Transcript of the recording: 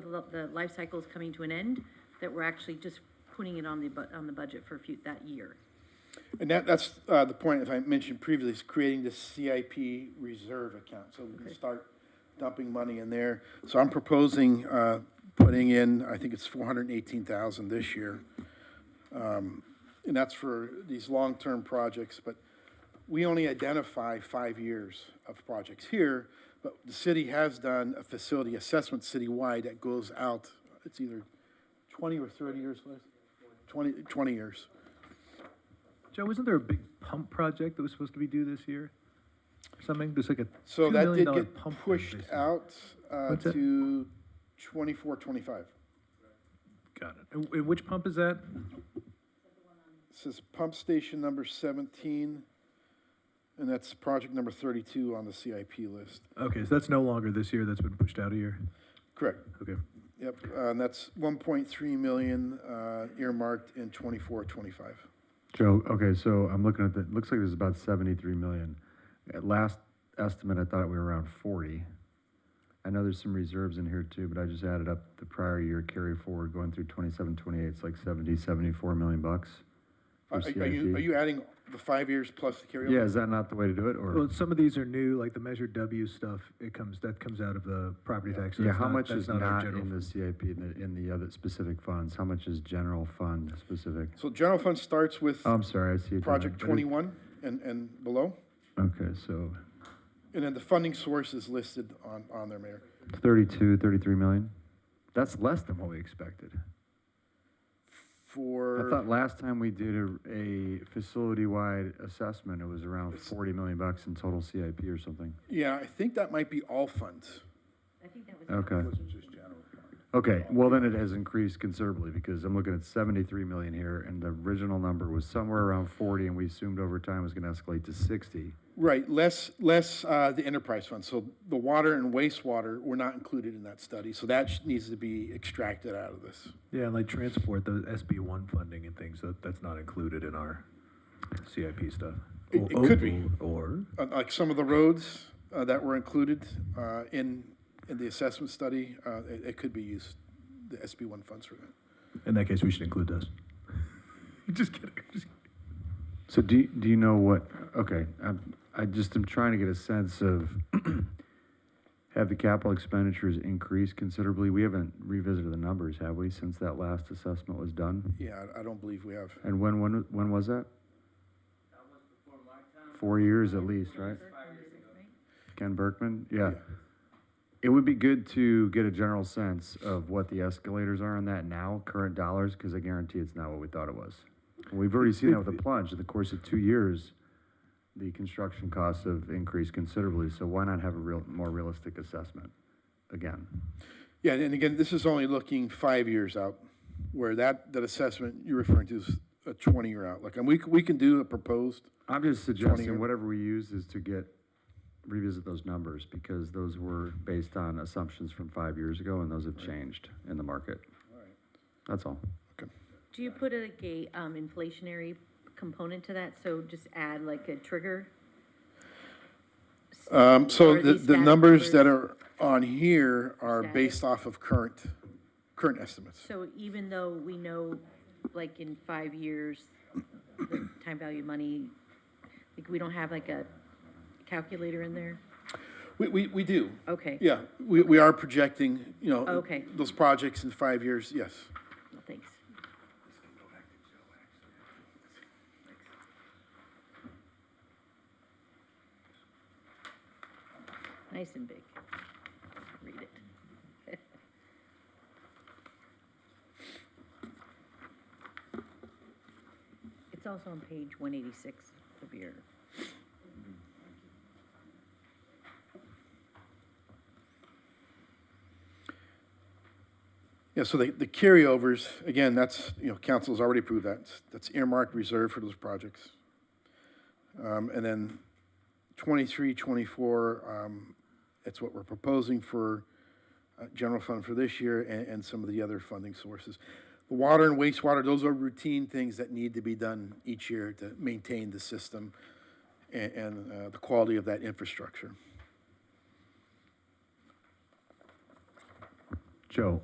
the, lo- the life cycle is coming to an end, that we're actually just putting it on the, bu- on the budget for fut, that year. And that, that's, uh, the point, as I mentioned previously, is creating this CIP reserve account, so we can start dumping money in there. So I'm proposing, uh, putting in, I think it's four hundred and eighteen thousand this year. Um, and that's for these long-term projects, but we only identify five years of projects here, but the city has done a facility assessment citywide that goes out, it's either twenty or thirty years, Liz? Twenty, twenty years. Joe, wasn't there a big pump project that was supposed to be due this year? Or Something, there's like a So $2 that million did get pump thing pushed they said. out uh, What's that? to twenty-four, twenty-five. Got it. And- and which pump is that? This is pump station number seventeen, and that's project number thirty-two on the CIP list. Okay, so that's no longer this year, that's been pushed out a year. Correct, Okay. yep, uh, and that's one point three million uh, earmarked in twenty-four, twenty-five. Joe, okay, so I'm looking at the, looks like there's about seventy-three million. At last estimate, I thought we were around forty. I know there's some reserves in here too, but I just added up the prior year carry forward going through 27, 28. It's like 70, 74 million bucks. for Are are you, CIP. are you adding the five years plus the carryover? Yeah, is that not the way to do it or? Well, some of these are new, like the Measure W stuff, it comes, that comes out of the property tax. so Yeah, that's how not- much that's is our not general in the fund. CIP in the, in the other specific funds? How much is general fund specific? So general fund starts with Oh, I'm sorry, I see. it. project But it- twenty-one and, and below, Okay, so and then the funding source is listed on, on there, Mayor. 32, 33 million? That's less than what we expected. For. I thought last time we did a, a facility-wide assessment, it was around forty million bucks in total CIP or something. Yeah, I think that might be all funds. I think that was. Okay. Okay, well then it has increased considerably because I'm looking at seventy-three million here and the original number was somewhere around forty and we assumed over time it was gonna escalate to sixty. Right, less, less uh, the enterprise fund. So the water and wastewater were not included in that study, so that sh- needs to be extracted out of this. Yeah, and like transport, the SB one funding and things, that, that's not included in our CIP stuff. It- Or- it could be. Or, Uh, Like some of the roads uh, that were included uh, in, in the assessment study, uh, it it could be used, the SB one funds for that. in that case, we should include those. Just kidding, just kidding. So do, you- do you know what, okay, I'm, I just am trying to get a sense of, have the capital expenditures increased considerably? We haven't revisited the numbers, have we, since that last assessment was done? Yeah, I- I don't believe we have. And when, when, when was that? Four years at least, right? Ken Berkman, yeah. It would be good to get a general sense of what the escalators are on that now, current dollars, because I guarantee it's not what we thought it was. We've already seen that with the plunge, in the course of two years, the construction costs have increased considerably, so why not have a real, more realistic assessment again? Yeah, and again, this is only looking five years out, where that, that assessment you're referring to is a twenty-year outlook. And we, c- we can do a proposed, I'm just year- suggesting whatever we use is to get, revisit those numbers, because those were based on assumptions from five years ago, and those have changed in the market. That's all. okay. Do you put like a, um, inflationary component to that? So just add like a trigger? Um, so Or the, these the static numbers that numbers? are on here are Static. based off of current, current estimates. So even though we know, like in five years, the time value of money, like we don't have like a calculator in there? We, we, we do, Okay. yeah, we, we are projecting, you know. Okay. Those projects in five years, yes. Well, Thanks. Nice and big. Read it. It's also on page one eighty-six of your, Yeah, so the, the carryovers, again, that's, you know, council's already approved that, that's earmarked reserve for those projects. Um, and then twenty-three, twenty-four, um, that's what we're proposing for, uh, general fund for this year and, and some of the other funding sources. The water and wastewater, those are routine things that need to be done each year to maintain the system and, and, uh, the quality of that infrastructure. Joe,